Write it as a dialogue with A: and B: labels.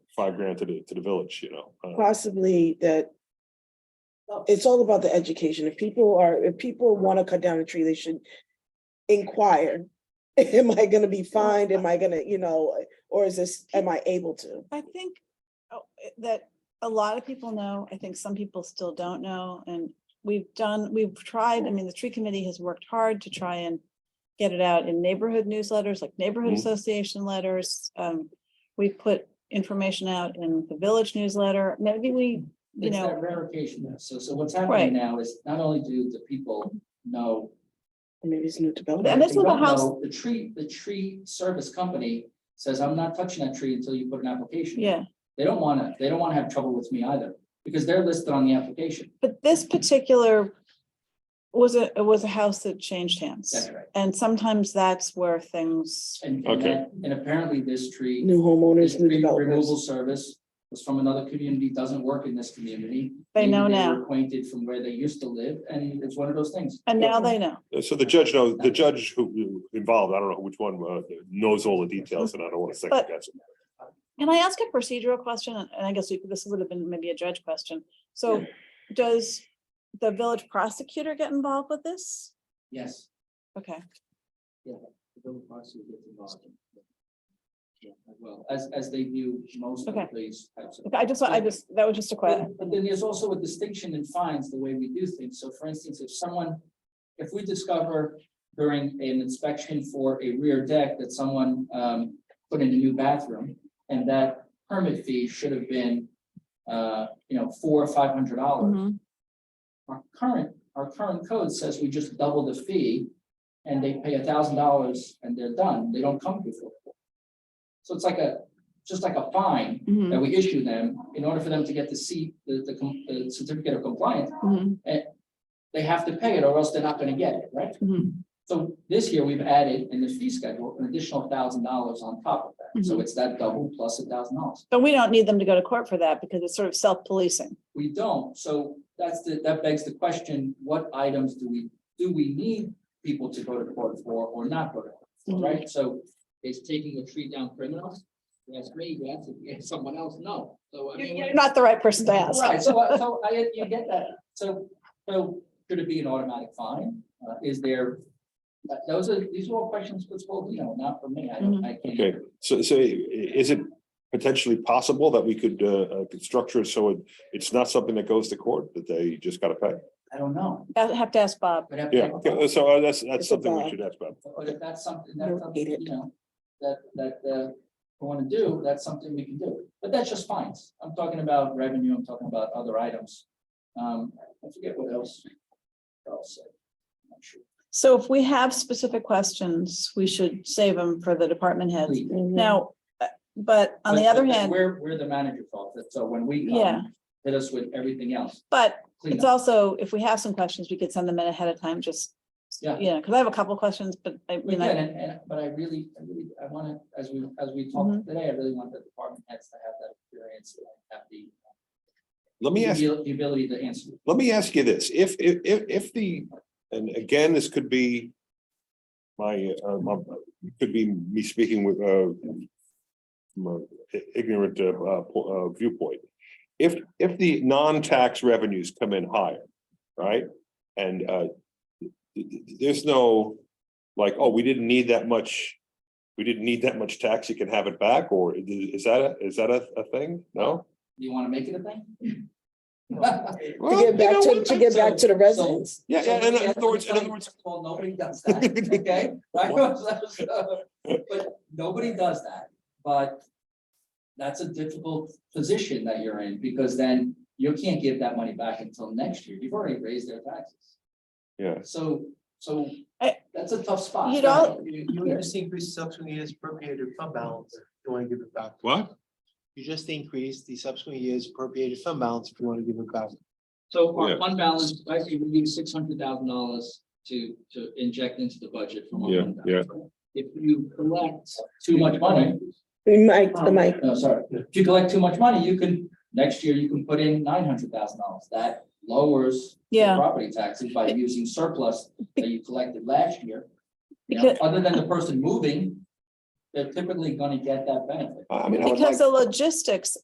A: five grand to the, to the village, you know? uh,
B: possibly that. It's all about the education. If people are, if people want to cut down a tree, they should inquire. Am I gonna be fined? Am I gonna, you know, or is this, am I able to?
C: I think oh, it- that a lot of people know, I think some people still don't know, and we've done, we've tried, I mean, the tree committee has worked hard to try and get it out in neighborhood newsletters, like neighborhood
A: Mhm.
D: Mm-hmm.
C: association letters. Um, we put information out in the village newsletter, maybe we, you
D: It's that
C: know,
D: rarification, though. so, so what's
C: Right.
D: happening now is not only do the people know.
B: Maybe it's new development.
C: And
D: but if
C: this
D: they
C: was a
D: don't know,
C: house-
D: The tree, the tree service company says, I'm not touching that tree until you put an application. in."
C: yeah.
D: They don't wanna, they don't wanna have trouble with me either, because they're listed on the application.
C: But this particular was a, it was a house that changed hands.
D: That's right.
C: And sometimes that's where things
D: And, and
A: Okay.
D: that- and apparently this tree.
B: New
D: This
B: homeowners, new
D: tree removal
B: developers.
D: service was from another community, doesn't work in this community.
C: They
D: Maybe
C: know
D: were
C: now.
D: Acquainted from where they used to live, and it's one of those things.
C: And now they know.
A: So the judge knows, the judge who- who involved, I don't know which one, uh, knows all the details and I don't want to second
C: But-
A: guess. it.
C: Can I ask a procedural question? And and I guess we could- this would have been maybe a judge question. So does the village prosecutor get involved with this?
D: Yes.
C: Okay,
D: the village prosecutor gets involved. Yeah, Well, as, as they do most of
C: Okay.
D: these types of.
C: Okay, I just, I just, that was just a question.
D: But but then there's also a distinction in fines, the way we do things. So for instance, if someone, if we discover during an inspection for a rear deck that someone um put in a new bathroom and that permit fee should have been uh, you know, four or five hundred dollars. Our current, our current code says we just double the fee and they pay a thousand dollars and they're done. They don't come before. So it's like a, just like a fine that we issue them in order for them to get the seat, the, the com- the certificate of compliance. They have to pay it or else they're not gonna get it, right? So this year, we've added in the fee schedule an additional thousand dollars on top of that. So it's that double plus a thousand dollars.
C: But we don't need them to go to court for that because it's sort of self-policing.
D: We don't, so that's the, that begs the question, what items do we, do we need people to go to court for or not go to court for,
C: Mhm.
D: right? So is taking a tree down criminal? You ask me, you ask, you ask someone else, no. So I mean.
C: You're not the right person to ask.
D: Right, so, I- so I, you get that, so, so should it be an automatic fine? Uh, is there? uh, Those are, these are all questions for school, you know, not for me, I
C: Mm-hmm.
D: don't, I can't.
A: Okay, so, so i- is it potentially possible that we could, uh, uh, could structure it so it, it's not something that goes to court, that they just gotta pay?
D: I don't know.
C: I have to ask Bob.
D: But if-
A: Yeah, okay, so uh, that's, that's
B: It's
A: something we
B: about-
A: should ask about.
D: But if that's something, that's
B: Nope, hate
D: something,
B: it.
D: you know, that, that, uh, we wanna do, that's something we can do, but that's just fines. I'm talking about revenue, I'm talking about other items. Um, I forget what else. Else. I'm not sure.
C: So if we have specific questions, we should save them for the department heads. Now, uh, but on the
D: But-
C: other
D: but
C: hand,
D: We're, we're the manager fault, so when we. come,
C: Yeah.
D: Hit us with everything else.
C: but
D: clean
C: It's
D: up.
C: also, if we have some questions, we could send them in ahead of time, just,
D: Yeah.
C: you know, because I have a couple questions, but I,
D: We
C: you
D: can,
C: know,
D: and, and, but I really, I really, I wanna, as we, as we talk
C: Mhm.
D: today, I really want the department heads to have that experience, and have the.
A: Let me ask,
D: The abil- the ability to answer.
A: let me ask you this, if, if, if, if the, and again, this could be my, uh, my, could be me speaking with, uh, my ignorant, uh, uh, po- uh, viewpoint. If, if the non-tax revenues come in higher, right? And, uh, there's no, like, oh, we didn't need that much, we didn't need that much tax, you can have it back, or is that a, is that a, a thing? No?
D: Do you wanna make it a thing?
B: To get back to, to get back to the residents.
A: Yeah, yeah, in other words, in other words,
D: Well, nobody does that, okay? But nobody does that, but that's a difficult position that you're in, because then you can't give that money back until next year. You've already raised their taxes.
A: yeah.
D: So, so
C: I-
D: that's a tough spot.
C: You don't-
E: You, you just increase subsequent years appropriated fund balance, if you wanna give it back.
A: What?
E: You just increase the subsequent years appropriated fund balance if you wanna give it back.
D: So
A: Yeah.
D: our fund balance, I think we need six hundred thousand dollars to, to inject into the budget from. our
A: Yeah,
D: fund balance. If you collect too much money.
B: Mike, the mic.
D: No, sorry, if you collect too much money, you can, next year you can put in nine hundred thousand dollars, that lowers. the
C: Yeah.
D: Property taxes by using surplus that you collected last year. You know,
C: Because-
D: Other than the person moving, they're typically gonna get that benefit.
A: I mean, I would like.
C: because the logistics